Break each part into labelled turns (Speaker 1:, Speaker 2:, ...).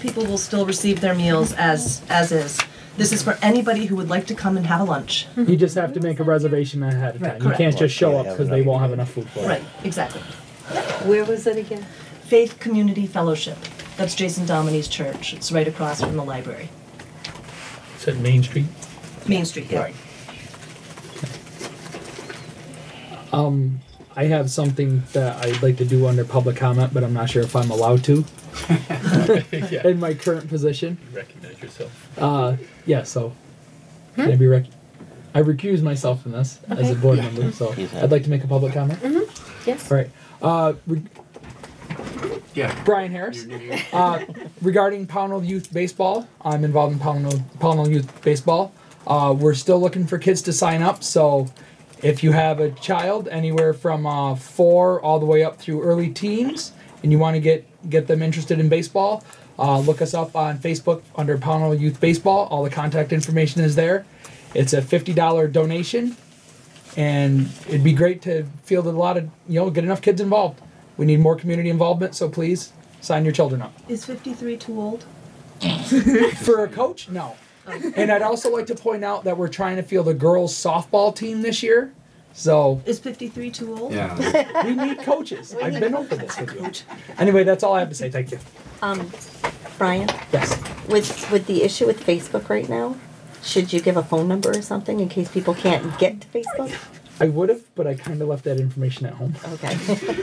Speaker 1: people will still receive their meals as as is. This is for anybody who would like to come and have a lunch.
Speaker 2: You just have to make a reservation ahead of
Speaker 1: Right,
Speaker 2: time. You
Speaker 1: correct.
Speaker 2: can't just show up
Speaker 3: Yeah,
Speaker 2: because they
Speaker 3: enough.
Speaker 2: won't have enough food for
Speaker 1: Right,
Speaker 2: it.
Speaker 1: exactly.
Speaker 4: Where was it again?
Speaker 1: Faith Community Fellowship. That's Jason Dominy's church. It's right across from the library.
Speaker 5: Is that Main Street?
Speaker 1: Main Street, yeah.
Speaker 2: Um, I have something that I'd like to do under public comment, but I'm not sure if I'm allowed to
Speaker 5: yeah.
Speaker 2: in my current position.
Speaker 5: You recognize yourself.
Speaker 2: Uh, yeah, so
Speaker 1: Hmm?
Speaker 2: can I be rec- I recuse myself from this as a
Speaker 4: Okay.
Speaker 2: board member, so
Speaker 3: He's happy.
Speaker 2: I'd like to make a public comment.
Speaker 1: Mm-hmm.
Speaker 4: Yes.
Speaker 2: All right. Uh, re-
Speaker 6: Yeah.
Speaker 2: Brian Harris.
Speaker 6: You're- you're-
Speaker 2: Uh, regarding Pownell Youth Baseball, I'm involved in Pownell, Pownell Youth Baseball. Uh, we're still looking for kids to sign up, so if you have a child anywhere from uh, four all the way up through early teens, and you want to get get them interested in baseball, uh, look us up on Facebook under Pownell Youth Baseball. All the contact information is there. It's a fifty dollar donation, and it'd be great to field a lot of you know get enough kids involved. We need more community involvement, so please sign your children up
Speaker 1: Is 53 too old?
Speaker 2: for a coach no and i'd also like to point out that we're trying to field a girls softball team this year so
Speaker 1: Is 53 too old?
Speaker 6: Yeah.
Speaker 2: we need coaches i've been over this with you anyway that's all i have to say thank you
Speaker 4: Um, Brian,
Speaker 2: yes
Speaker 4: with with the issue with Facebook right now, should you give a phone number or something in case people can't get to Facebook?
Speaker 2: i would have but i kind of left that information at home
Speaker 4: Okay.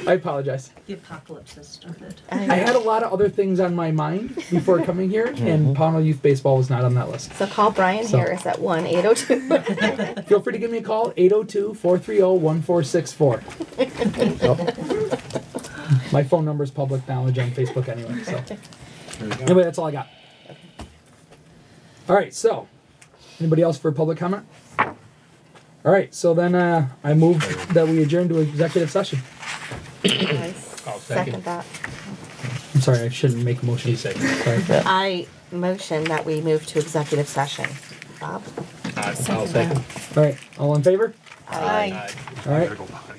Speaker 2: i apologize
Speaker 1: The apocalypse has started.
Speaker 2: i had a lot of other things on my mind before coming here and pownell youth baseball was not on that list
Speaker 4: so call Brian
Speaker 2: So-
Speaker 4: Harris at one eight zero two.
Speaker 2: feel free to give me a call 802-430-1464 my phone number is public knowledge on facebook anyway so Anyway, that's all I got. All right, so anybody else for public comment? All right, so then uh, I move that we adjourn to executive session.
Speaker 5: I'll second.
Speaker 4: Second that.
Speaker 2: I'm sorry, I shouldn't make a motion.
Speaker 5: She said.
Speaker 2: Sorry.
Speaker 4: I motion that we move to executive session. Bob.
Speaker 5: I'll second.
Speaker 2: All right, all in favor?
Speaker 4: Aye.
Speaker 2: All right.
Speaker 6: Gotta go behind.